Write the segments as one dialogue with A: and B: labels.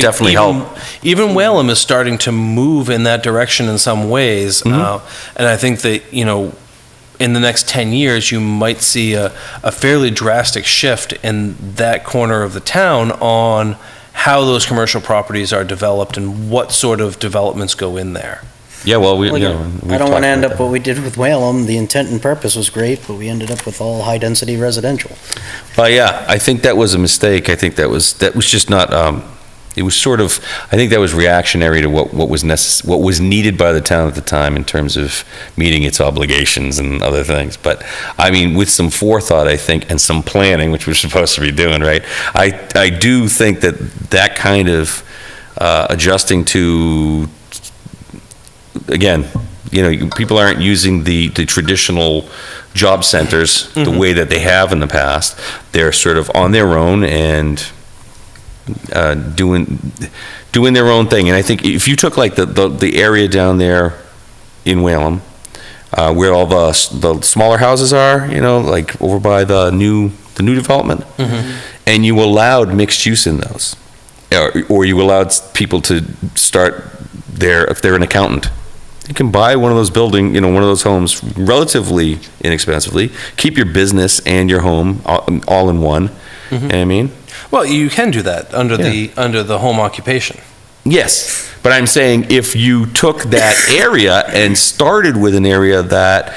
A: Definitely
B: even-
A: help.
B: Even Whalum is starting to move in that direction in some ways,
A: Mm-hmm.
B: uh, and I think that you know, in the next ten years, you might see a, a fairly drastic shift in that corner of the town on how those commercial properties are developed and what sort of developments go in there.
A: Yeah, well, we, you
C: Well,
A: know.
C: I
A: we've
C: don't
A: talked
C: want to end
A: about
C: up what we did with Whalum. The intent and purpose was great, but we ended up with all high-density residential.
A: that. Well, Oh, yeah, I think that was a mistake. I think that was, that was just not, um, it was sort of, I think that was reactionary to what, what was necess, what was needed by the town at the time in terms of meeting its obligations and other things. But, I mean, with some forethought, I think, and some planning, which we're supposed to be doing, right? I, I do think that that kind of uh, adjusting to, again, you know, people aren't using the, the traditional job centers the way that they have in the past. They're sort of on their own and uh, doing, doing their own thing. And I think if you took like the, the, the area down there in Whalum, uh, where all the, s- the smaller houses are, you know, like over by the new, the new development, and you allowed mixed use in those, or, or you allowed s- people to start their, if they're an accountant, you can buy one of those building, you know, one of those homes relatively inexpensively, keep your business and your home all, all in one, you know what I mean?
B: Well, you can do that under the under the home occupation.
A: Yes, but I'm saying if you took that area and started with an area that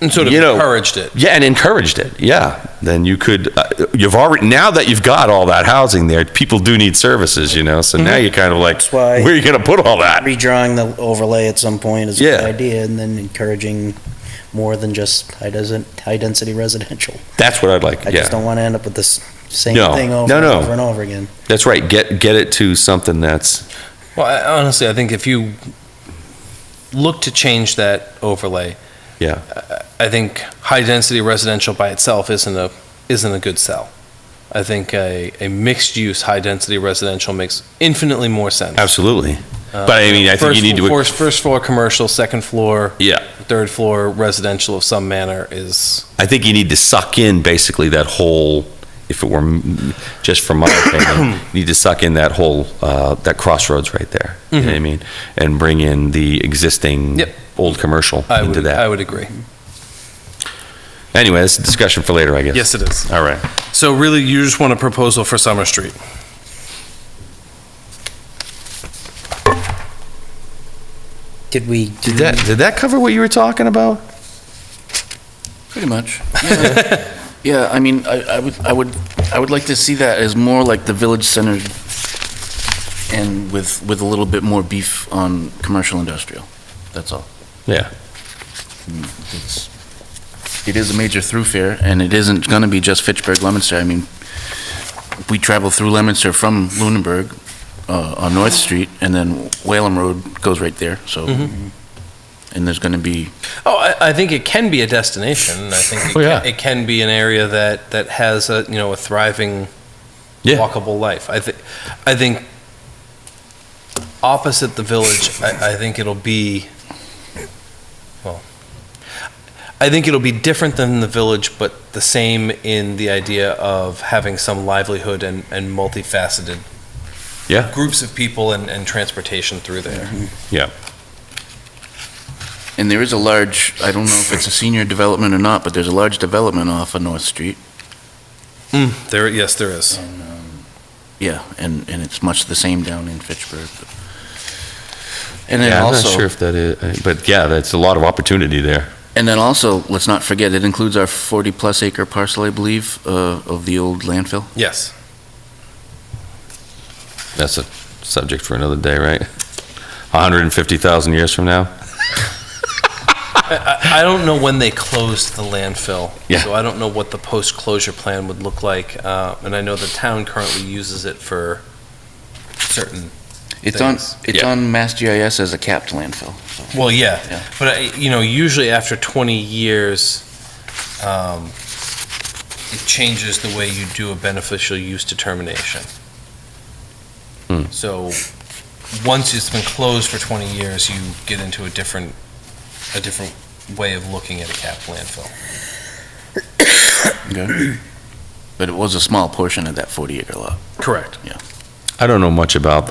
B: And sort of
A: you know,
B: encouraged it.
A: yeah, and encouraged it, yeah, then you could. Uh, you've already now that you've got all that housing there, people do need services, you know. So now you're kind of like,
C: Mm-hmm. That's why-
A: where are you going to put all that?
C: Redrawing the overlay at some point is a good
A: Yeah.
C: idea, and then encouraging more than just high-density, high-density residential.
A: That's what I'd like.
C: I
A: yeah,
C: just don't want to end up with this same
A: No.
C: thing over
A: No,
C: and
A: no.
C: over and over again.
A: that's right. Get get it to something that's
B: Well, I, honestly, I think if you look to change that overlay,
A: yeah.
B: I think high density residential by itself isn't a isn't a good sell. I think a, a mixed use high density residential makes infinitely more sense. Uh,
A: Absolutely. but I mean, I think
B: First,
A: you need to.
B: first, first floor commercial, second floor,
A: Yeah,
B: third floor residential of some manner is
A: I think you need to suck in basically that whole. If it were m- just from my opinion, you need to suck in that whole uh, that crossroads right there. You know what I mean, and bring in the existing
B: Mm-hmm. Yep.
A: old commercial
B: I
A: into
B: would
A: that.
B: I would agree.
A: Anyway, that's a discussion for later, I guess.
B: Yes, it is.
A: All right.
B: So really, you just want a proposal for Summer Street.
C: Did we? do-
A: Did that did that cover what you were talking about?
D: Pretty much. yeah. Yeah, I mean, I, I would, I would, I would like to see that as more like the village center and with, with a little bit more beef on commercial industrial. That's all.
A: Yeah.
D: It's, it is a major thoroughfare and it isn't gonna be just Fitchburg, Lemonster. I mean, we travel through Lemonster from Lunenburg, uh, on North Street and then Whalum Road goes right there, so. And there's gonna be
B: Oh, I, I think it can be a destination. I think it,
A: Oh, yeah.
B: can, it can be an area that, that has a you know a thriving,
A: Yeah.
B: walkable life. I think I think opposite the village, I, I think it'll be well. I think it'll be different than the village, but the same in the idea of having some livelihood and, and multifaceted
A: Yeah.
B: groups of people and, and transportation through there.
D: And there is a large, I don't know if it's a senior development or not, but there's a large development off of North Street.
B: Mm, there, yes, there is.
D: And, um, Yeah, and, and it's much the same down in Fitchburg. And then
A: yeah, I'm not sure
D: also,
A: if that is, uh, but yeah, that's a lot of opportunity there.
D: and then also, let's not forget, it includes our 40-plus acre parcel, I believe, uh, of the old landfill.
B: Yes.
A: That's a subject for another day, right? 150,000 years from now.
B: I I don't know when they closed the landfill.
A: Yeah.
B: So I don't know what the post-closure plan would look like. uh, And I know the town currently uses it for certain,
D: It's on,
B: Thanks.
D: it's
A: Yeah.
D: on Mass GIS as a capped landfill.
B: well,
D: Yeah.
B: yeah. But, I- you know, usually after 20 years, um, it changes the way you do a beneficial use determination.
A: Hmm.
B: So, once it's been closed for 20 years, you get into a different, a different way of looking at a capped landfill.
D: Okay. But it was a small portion of that 40 acre lot.
B: Correct.
A: I don't know much about them.